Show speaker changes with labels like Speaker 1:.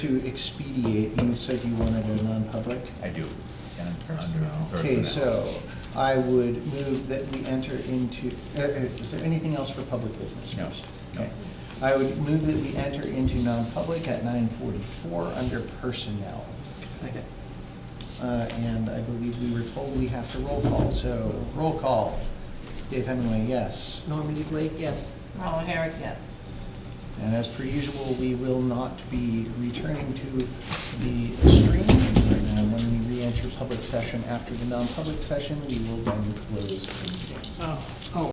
Speaker 1: to expedite, you said you wanted a non-public?
Speaker 2: I do. And under
Speaker 3: Personnel.
Speaker 1: Okay,
Speaker 2: personnel.
Speaker 1: so I would move that we enter into, uh, uh, is there anything else for public business?
Speaker 2: No,
Speaker 1: first?
Speaker 2: no.
Speaker 1: Okay. I would move that we enter into non-public at nine forty-four under personnel.
Speaker 3: Second.
Speaker 1: Uh, And I believe we were told we have to roll call, so roll call. Dave Hemingway, yes.
Speaker 3: Normandy Blake, yes.
Speaker 4: Ronald Herrick, yes.
Speaker 1: And as per usual, we will not be returning to the stream. And when we re-enter public session after the non-public session, we will then close the meeting.
Speaker 3: Oh, oh,